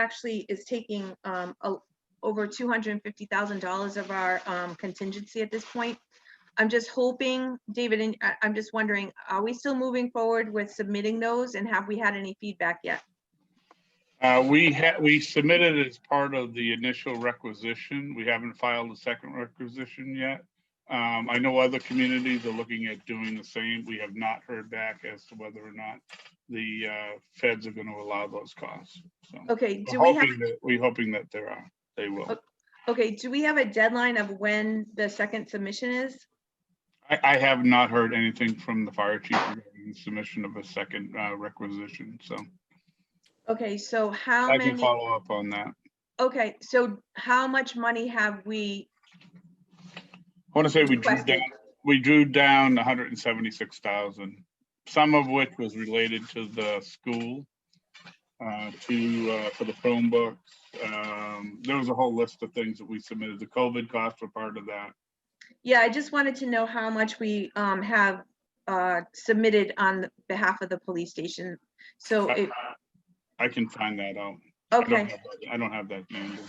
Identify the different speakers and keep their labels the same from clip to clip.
Speaker 1: actually is taking um, a- over $250,000 of our um, contingency at this point. I'm just hoping, David, and I- I'm just wondering, are we still moving forward with submitting those and have we had any feedback yet?
Speaker 2: Uh, we had, we submitted it as part of the initial requisition. We haven't filed a second requisition yet. Um, I know other communities are looking at doing the same. We have not heard back as to whether or not the, uh, feds are going to allow those costs. So
Speaker 1: Okay, do
Speaker 2: we're
Speaker 1: we have,
Speaker 2: hoping that, we're hoping that there are, they will.
Speaker 1: okay, do we have a deadline of when the second submission is?
Speaker 2: I, I have not heard anything from the fire chief regarding the submission of a second, uh, requisition. So
Speaker 1: Okay, so how
Speaker 2: I can
Speaker 1: many,
Speaker 2: follow up on that.
Speaker 1: okay, so how much money have we
Speaker 2: I want to say we drew
Speaker 1: requested?
Speaker 2: down we drew down hundred and seventy-six thousand, some of which was related to the school. Uh, to, uh, for the Chromebooks, um, there was a whole list of things that we submitted. The COVID costs were part of that.
Speaker 1: Yeah, I just wanted to know how much we um have uh submitted on behalf of the police station. So, Oh, it-
Speaker 2: I can find that out. I don't
Speaker 1: okay,
Speaker 2: have that- I don't have that number.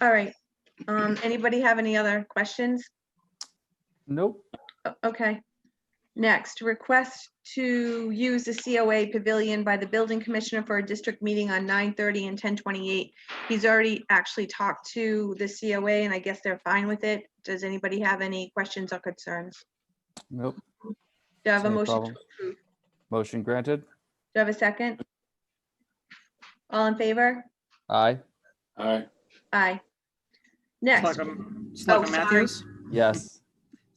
Speaker 1: all right. Um, anybody have any other questions?
Speaker 3: Nope.
Speaker 1: O- Okay. Next, request to use the COA pavilion by the building commissioner for a district meeting on 9:30 and 10:28. He's already actually talked to the COA and I guess they're fine with it. Does anybody have any questions or concerns?
Speaker 3: Nope.
Speaker 1: Do I have a
Speaker 3: No
Speaker 1: motion to
Speaker 3: problem.
Speaker 1: approve?
Speaker 3: Motion granted.
Speaker 1: Do I have a second? All in favor?
Speaker 3: Aye.
Speaker 4: Aye.
Speaker 1: Aye. Next,
Speaker 5: Selectman
Speaker 1: Oh,
Speaker 5: Selectman
Speaker 1: sorry.
Speaker 5: Matthews,
Speaker 3: Yes.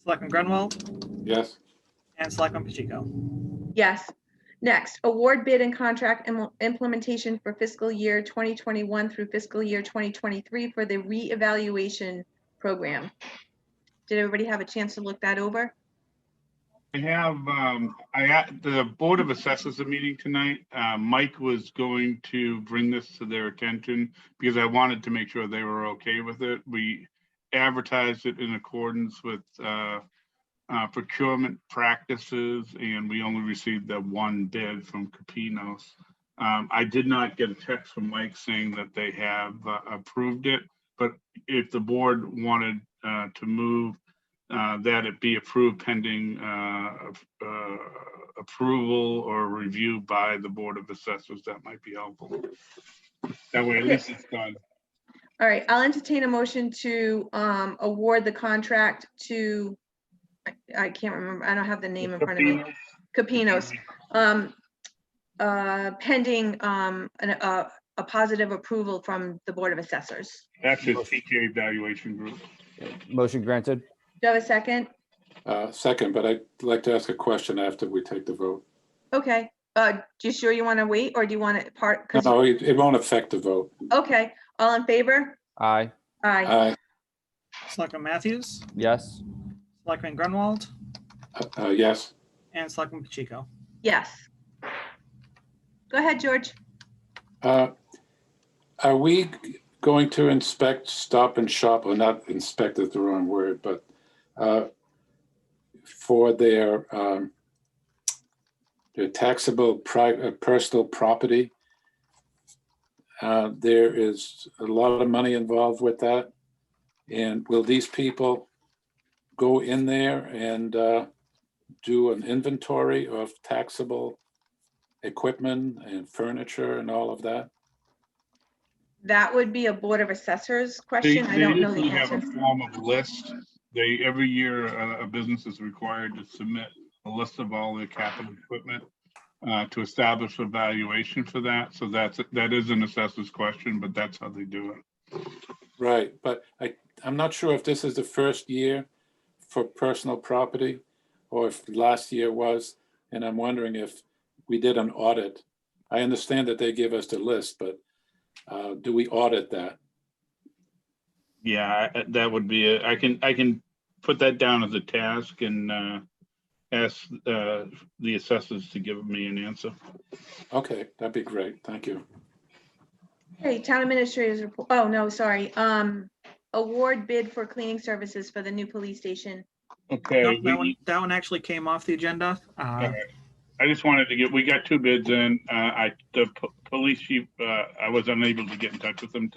Speaker 5: Selectman Grunwald,
Speaker 4: Yes.
Speaker 5: and Selectman Pacheco.
Speaker 1: yes. Next, award bid and contract im- implementation for fiscal year 2021 through fiscal year 2023 for the reevaluation program. Did everybody have a chance to look that over?
Speaker 2: I have, um, I, at the Board of Assessors a meeting tonight. Uh, Mike was going to bring this to their attention because I wanted to make sure they were okay with it. We advertised it in accordance with, uh, uh, procurement practices and we only received the one bid from Capinos. Um, I did not get a text from Mike saying that they have uh, approved it, but if the board wanted, uh, to move uh, that it be approved pending uh, of- uh, approval or review by the Board of Assessors. That might be helpful. That way, at least it's done.
Speaker 1: All right, I'll entertain a motion to um, award the contract to, I- I can't remember, I don't have the name in front of me. Capinos. um, uh, pending, um, an, uh, a positive approval from the Board of Assessors.
Speaker 2: That's his TK evaluation group.
Speaker 3: Motion granted.
Speaker 1: Do I have a second?
Speaker 4: Uh, Second, but I'd like to ask a question after we take the vote.
Speaker 1: Okay, uh, do you sure you want to wait or do you want to part? 'cause-
Speaker 4: No, it it won't affect the vote.
Speaker 1: Okay, all in favor?
Speaker 3: Aye.
Speaker 1: Aye.
Speaker 4: Aye.
Speaker 5: Selectman Matthews,
Speaker 3: Yes.
Speaker 5: Selectman Grunwald,
Speaker 4: Uh, uh, Yes.
Speaker 5: and Selectman Pacheco.
Speaker 1: Yes. Go ahead, George.
Speaker 4: Uh, Are we g- going to inspect Stop and Shop, or not inspect is the wrong word, but uh, for their um, their taxable pri- uh, personal property? Uh, There is a lot of money involved with that. And will these people go in there and uh, do an inventory of taxable equipment and furniture and all of that?
Speaker 1: That would be a Board of Assessors
Speaker 2: They
Speaker 1: question. I
Speaker 2: they
Speaker 1: don't know the
Speaker 2: usually have
Speaker 1: answer.
Speaker 2: a form of list. They, every year, uh, a a business is required to submit a list of all their capital equipment uh, to establish a valuation for that. So that's, that is an assessor's question, but that's how they do it.
Speaker 4: Right, but I, I'm not sure if this is the first year for personal property or if last year was, and I'm wondering if we did an audit. I understand that they give us the list, but uh, do we audit that?
Speaker 2: Yeah, I- I- that would be, a- I can, I can put that down as a task and uh, ask uh, the assessors to give me an answer.
Speaker 4: Okay, that'd be great. Thank you.
Speaker 1: Hey, Town Administrators, report. oh, no, sorry. Um, award bid for cleaning services for the new police station.
Speaker 2: Okay,
Speaker 5: Nope, That one,
Speaker 2: we-
Speaker 5: that one actually came off the agenda. Uh,
Speaker 2: I just wanted to get, we got two bids in. Uh, I, the p- police chief, uh, I was unable to get in touch with him